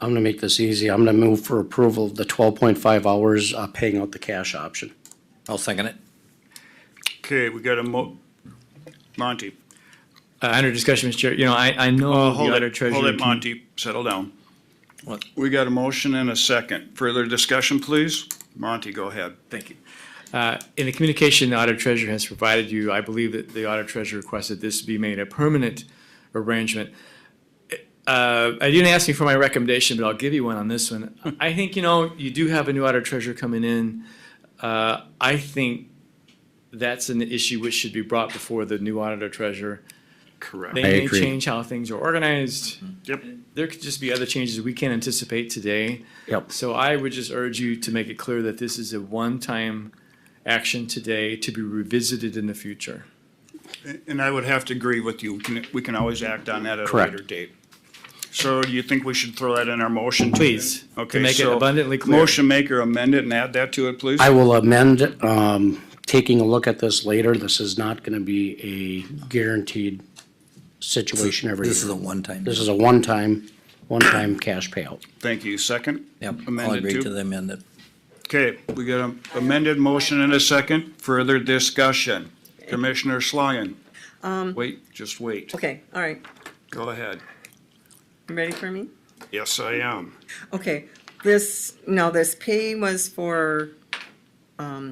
I'm gonna make this easy. I'm gonna move for approval of the twelve point five hours, uh, paying out the cash option. I'll second it. Okay, we got a mo, Monty. Uh, under discussion, Mr. Chair, you know, I, I know the Oh, Hold auditor it, hold treasurer. it, can- Monty, settle down. What? We got a motion and a second. Further discussion, please? Monty, go ahead. Thank you. Uh, in the communication the auditor treasurer has provided you, I believe that the auditor treasurer requested this be made a permanent arrangement. Uh, I didn't ask you for my recommendation, but I'll give you one on this one. I think, you know, you do have a new auditor treasurer coming in. Uh, I think that's an issue which should be brought before the new auditor treasurer. Correct. They I may agree. change how things are organized. Yep. There could just be other changes we can't anticipate today. Yep. So I would just urge you to make it clear that this is a one-time action today to be revisited in the future. And I would have to agree with you. We can, we can always act on that at a Correct. later date. So do you think we should throw that in our motion? to- Please, to Okay, make it so abundantly clear. Motion maker amend it and add that to it, please? I will amend, um, taking a look at this later. This is not gonna be a guaranteed situation every year. This is a one-time. This is a one-time, one-time cash payout. Thank you. Second? Yep, I'll Amended agree too? to the amendment. Okay, we got an amended motion and a second. Further discussion. Commissioner Schlangen? Um. Wait, just wait. Okay, all right. Go ahead. You ready for me? Yes, I am. Okay, this, now this pay was for, um,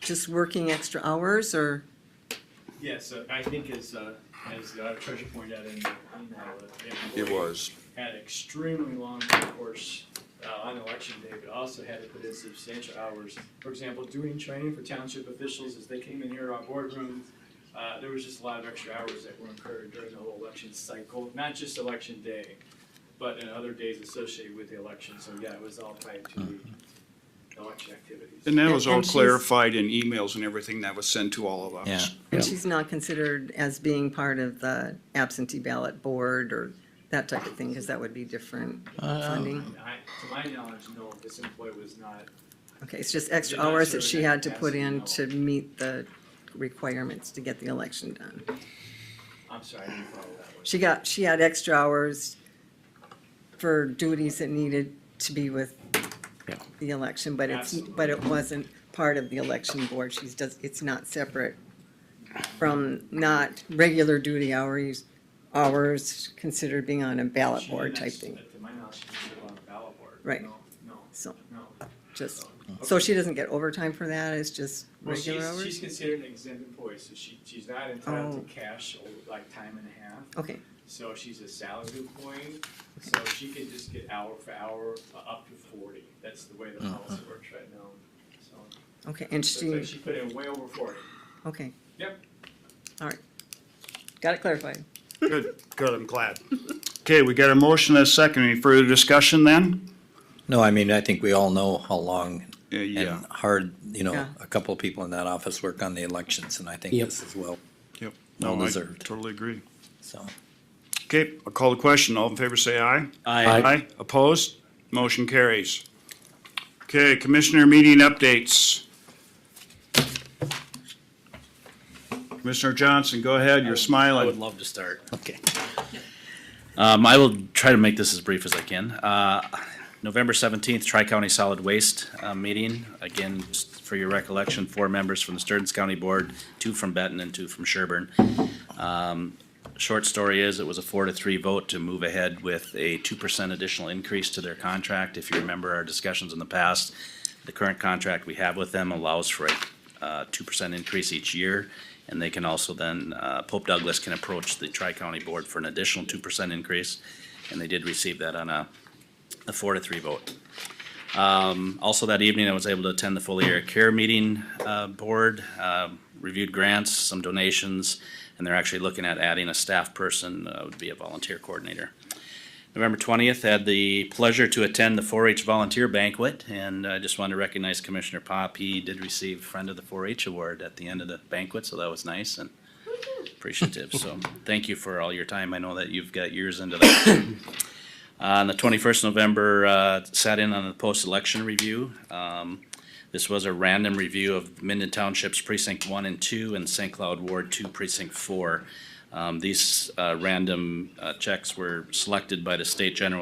just working extra hours or, Yes, uh, I think as, as the auditor treasurer pointed out in the uh, It was. had extremely long workforce uh, on election day, but also had to put in substantial hours. For example, doing training for township officials as they came in here to our boardroom, uh, there was just a lot of extra hours that were incurred during the whole election cycle, not just election day, but in other days associated with the election. So yeah, it was all tied to the election activities. And that was all And she's- clarified in emails and everything that was sent to all of us. Yeah. and she's not considered as being part of the absentee ballot board or that type of thing, because that would be different funding. I, to my knowledge, no, this employee was not Okay, it's just extra Did not hours that serve she in had that to put in to capacity, meet the requirements to get the election done. I'm sorry, I didn't follow that one. She got, she had extra hours for duties that needed to be with Yeah. the election, but it's, but it wasn't part of the election board. She's does, it's not separate from not regular duty hours, hours considered being on a ballot board type thing, To my knowledge, she was on the ballot board. Right. No, no, so, no. just, so she doesn't get overtime for that, it's just Well, regular she's, she's hours? considered an exempt employee, so she, she's not entitled Oh. to cash or like time and a half. Okay, So she's a salaried employee, so she can just get hour for hour, uh, up to forty. That's the way the Uh-huh. policy works right now. So, okay, and so it's like she, she put in way over forty. okay. Yep. All right, got it clarified. Good, good, I'm glad. Okay, we got a motion and a second. Any further discussion then? No, I mean, I think we all know how long Uh, Yeah. and hard, you know, Yeah. a couple of people in that office work on the elections, and I think Yep. this is well, Yep. Well No, I deserved. Totally agree. so. Okay, I'll call the question. All in favor, say aye. Aye. Aye. Opposed? Motion carries. Okay, commissioner meeting updates. Commissioner Johnson, go ahead. You're I would smiling. love to start. Okay. Um, I will try to make this as brief as I can. Uh, November seventeenth, Tri-County Solid Waste, uh, meeting. Again, just for your recollection, four members from the Sturds County Board, two from Benton and two from Sherburne. Um, short story is, it was a four to three vote to move ahead with a two percent additional increase to their contract. If you remember our discussions in the past, the current contract we have with them allows for a, uh, two percent increase each year. And they can also then, uh, Pope Douglas can approach the Tri-County Board for an additional two percent increase. And they did receive that on a, a four to three vote. Um, also that evening, I was able to attend the Foliar Care Meeting, uh, Board, uh, reviewed grants, some donations, and they're actually looking at adding a staff person, uh, would be a volunteer coordinator. November twentieth, had the pleasure to attend the four H volunteer banquet, and I just wanted to recognize Commissioner Pop. He did receive Friend of the Four H Award at the end of the banquet, so that was nice and appreciative. So, thank you for all your time. I know that you've got years into that. Uh, On the twenty-first November, uh, sat in on the post-election review. Um, this was a random review of Minden Township's precinct one and two and St. Cloud Ward two precinct four. Um, these, uh, random, uh, checks were selected by the state general